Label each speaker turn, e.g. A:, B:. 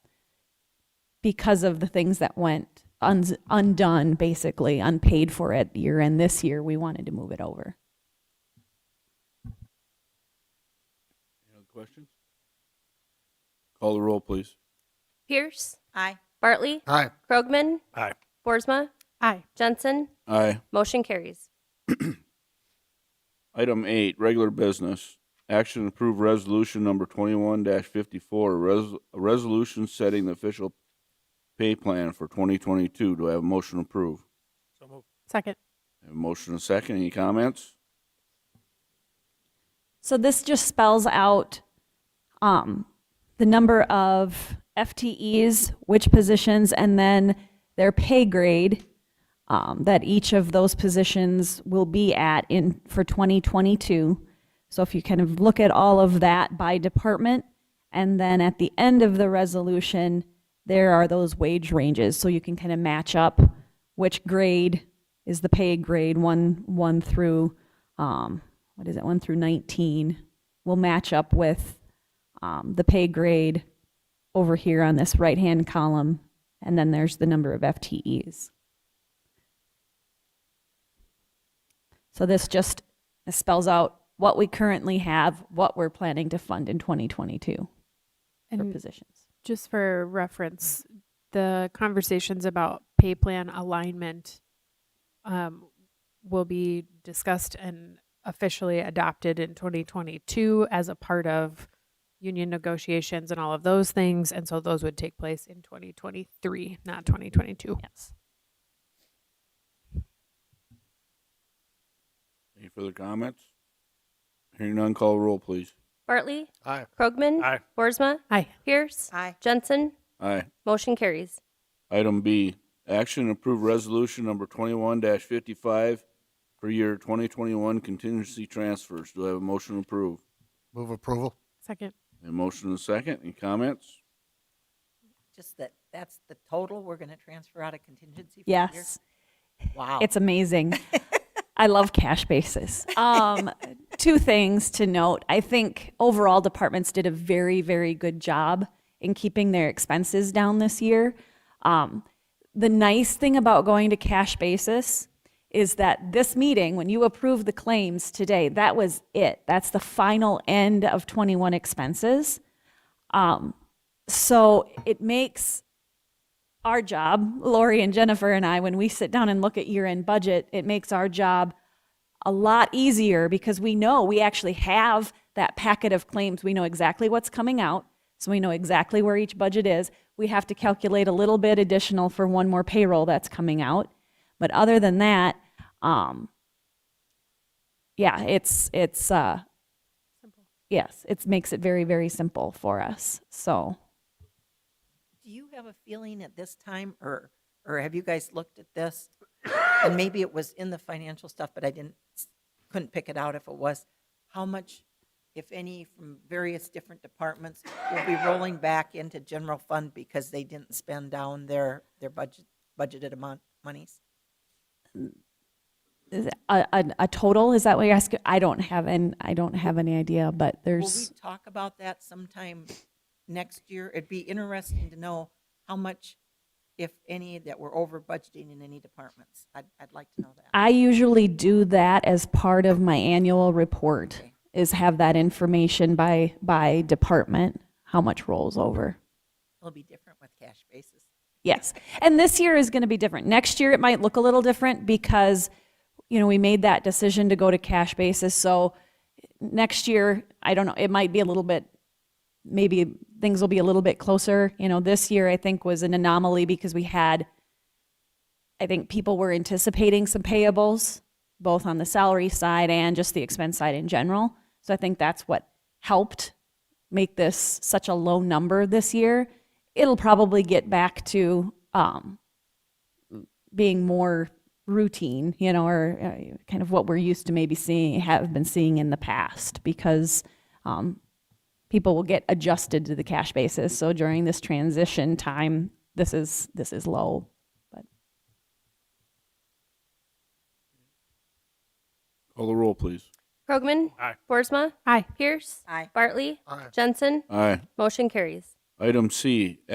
A: because of the things that went un- undone, basically, unpaid for at year end this year, we wanted to move it over.
B: Any other questions? Call the roll, please.
C: Pierce,
D: Aye.
C: Bartley,
E: Aye.
C: Krogman,
E: Aye.
C: Boersma,
D: Aye.
C: Jensen.
B: Aye.
C: Motion carries.
B: Item eight, regular business. Action to approve resolution number twenty-one fifty-four, res- a resolution setting the official pay plan for twenty twenty-two. Do I have a motion to approve?
D: Second.
B: Have a motion and a second. Any comments?
A: So this just spells out um, the number of FTEs, which positions, and then their pay grade um, that each of those positions will be at in for 2022. So if you kind of look at all of that by department, and then at the end of the resolution, there are those wage ranges. So you can kind of match up which grade is the pay grade one one through um, what is it one through 19 will match up with um, the pay grade over here on this right hand column, and then there's the number of FTEs. So this just spells out what we currently have, what we're planning to fund in 2022 for
D: And
A: positions.
D: just for reference, the conversations about pay plan alignment um, will be discussed and officially adopted in 2022 as a part of union negotiations and all of those things. And so those would take place in 2023, not 2022.
A: Yes.
B: Any further comments? Hearing none, call the roll, please.
C: Bartley,
E: Aye.
C: Krogman,
E: Aye.
C: Boersma,
D: Aye.
C: Pierce,
D: Aye.
C: Jensen.
B: Aye.
C: Motion carries.
B: Item B, action to approve resolution number twenty-one fifty-five for year twenty twenty-one contingency transfers. Do I have a motion to approve?
E: Move approval.
D: Second.
B: Have A motion and a second. Any comments?
F: Just that, that's the total we're going to transfer out of contingency? for the year?
A: Yes.
F: Wow.
A: It's amazing. I love cash basis. Um, two things to note. I think overall departments did a very, very good job in keeping their expenses down this year. Um, the nice thing about going to cash basis is that this meeting, when you approved the claims today, that was it. That's the final end of 21 expenses. Um, so it makes our job, Lori and Jennifer and I, when we sit down and look at year end budget, it makes our job a lot easier because we know we actually have that packet of claims. We know exactly what's coming out. So we know exactly where each budget is. We have to calculate a little bit additional for one more payroll that's coming out. But other than that, um, yeah, it's, it's, uh, yes, it makes it very, very simple for us. So.
F: Do you have a feeling at this time, or, or have you guys looked at this? And maybe it was in the financial stuff, but I didn't, couldn't pick it out if it was. How much, if any, from various different departments will be rolling back into general fund because they didn't spend down their, their budget, budgeted amount, monies?
A: Is it a, a, a total? Is that what you're asking? I don't have an, I don't have any idea, but
F: Will we
A: there's,
F: talk about that sometime next year? It'd be interesting to know how much, if any, that we're over budgeting in any departments. I'd, I'd like to know that.
A: I usually do that as part of my annual report,
F: Okay.
A: is have that information by, by department, how much rolls over.
F: It'll be different with cash basis.
A: Yes. And this year is going to be different. Next year, it might look a little different because, you know, we made that decision to go to cash basis. So next year, I don't know, it might be a little bit, maybe things will be a little bit closer. You know, this year, I think, was an anomaly because we had, I think people were anticipating some payables, both on the salary side and just the expense side in general. So I think that's what helped make this such a low number this year, it'll probably get back to um, being more routine, you know, or uh, kind of what we're used to maybe seeing, have been seeing in the past, because um, people will get adjusted to the cash basis. So during this transition time, this is this is low.
B: Call the roll, please.
C: Krogman,
E: Aye.
C: Boersma,
D: Aye.
C: Pierce,
F: Aye.
C: Bartley,
E: Aye.
C: Jensen.
B: Aye.
C: Motion carries.
B: Item C,